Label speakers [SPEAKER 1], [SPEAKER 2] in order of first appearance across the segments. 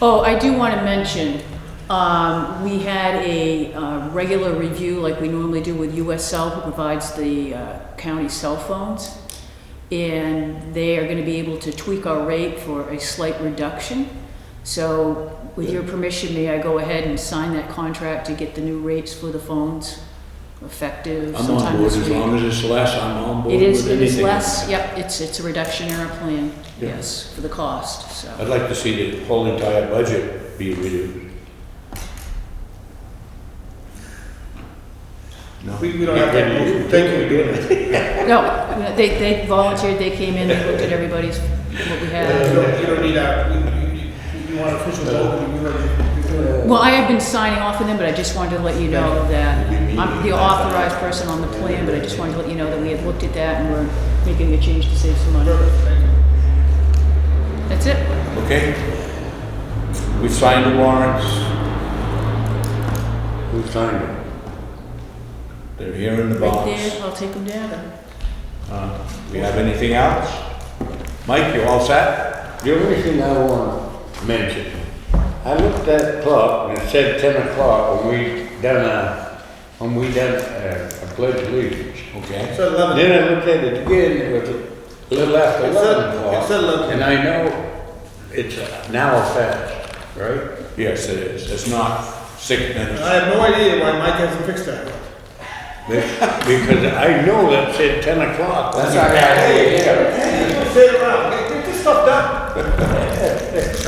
[SPEAKER 1] Oh, I do want to mention, um, we had a uh, regular review like we normally do with US Cell, who provides the uh, county cell phones. And they are going to be able to tweak our rate for a slight reduction. So with your permission, may I go ahead and sign that contract to get the new rates for the phones effective
[SPEAKER 2] I'm on
[SPEAKER 1] sometime
[SPEAKER 2] board,
[SPEAKER 1] this
[SPEAKER 2] as
[SPEAKER 1] week?
[SPEAKER 2] long as it's less, I'm on board
[SPEAKER 1] It is,
[SPEAKER 2] with
[SPEAKER 1] it is
[SPEAKER 2] anything.
[SPEAKER 1] less, yep, it's, it's a reduction in our plan,
[SPEAKER 2] Yeah.
[SPEAKER 1] yes, for the cost, so.
[SPEAKER 2] I'd like to see the whole entire budget be reviewed. No.
[SPEAKER 3] We, we don't have that motion. Thank you for doing it.
[SPEAKER 1] No, they, they volunteered, they came in, they looked at everybody's, what we
[SPEAKER 3] You
[SPEAKER 1] had.
[SPEAKER 3] don't, you don't need that. You, you, you- you want official vote, you already, you already.
[SPEAKER 1] Well, I have been signing off on them, but I just wanted to let you know that I'm the authorized person on the plan, but I just wanted to let you know that we had looked at that and we're making a change to save some money.
[SPEAKER 3] Perfect, thank you.
[SPEAKER 1] That's it.
[SPEAKER 2] Okay? We signed the warrants. Who signed them? They're here in the
[SPEAKER 1] Right
[SPEAKER 2] box.
[SPEAKER 1] there, I'll take them down.
[SPEAKER 2] Uh, We have anything else? Mike, you all set?
[SPEAKER 4] The only thing I want to mention, I looked at the clock and it said ten o'clock when we done a, when we done a, a pledge of allegiance.
[SPEAKER 2] Okay.
[SPEAKER 3] So eleven,
[SPEAKER 4] Then I looked at it again, it was a little after
[SPEAKER 3] It's at-
[SPEAKER 4] eleven
[SPEAKER 3] it's at
[SPEAKER 4] o'clock.
[SPEAKER 3] 11.
[SPEAKER 4] And I know it's an hour fast, right?
[SPEAKER 2] Yes, it is. It's not six minutes.
[SPEAKER 3] I have no idea why Mike hasn't fixed that.
[SPEAKER 4] Because I know that said ten o'clock.
[SPEAKER 2] That's our idea.
[SPEAKER 3] Sit around, get, get this stuff done.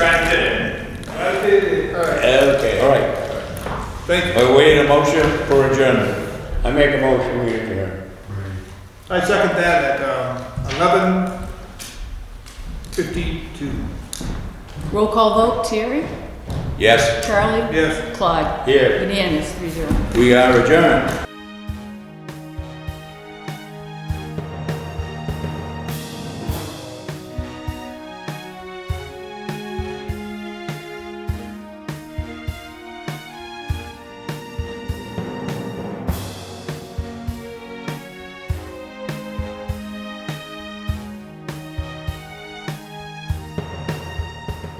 [SPEAKER 3] Right there. All right,
[SPEAKER 2] Okay, all right.
[SPEAKER 3] thank you.
[SPEAKER 2] I wait a motion for adjournment.
[SPEAKER 4] I make a motion we adjourn.
[SPEAKER 3] I second that at, um, eleven fifty-two.
[SPEAKER 1] Roll call vote, Terry,
[SPEAKER 2] Yes,
[SPEAKER 1] Charlie,
[SPEAKER 3] Yes.
[SPEAKER 1] Clyde.
[SPEAKER 4] Here,
[SPEAKER 1] Unanimous, three zero.
[SPEAKER 2] we are adjourned.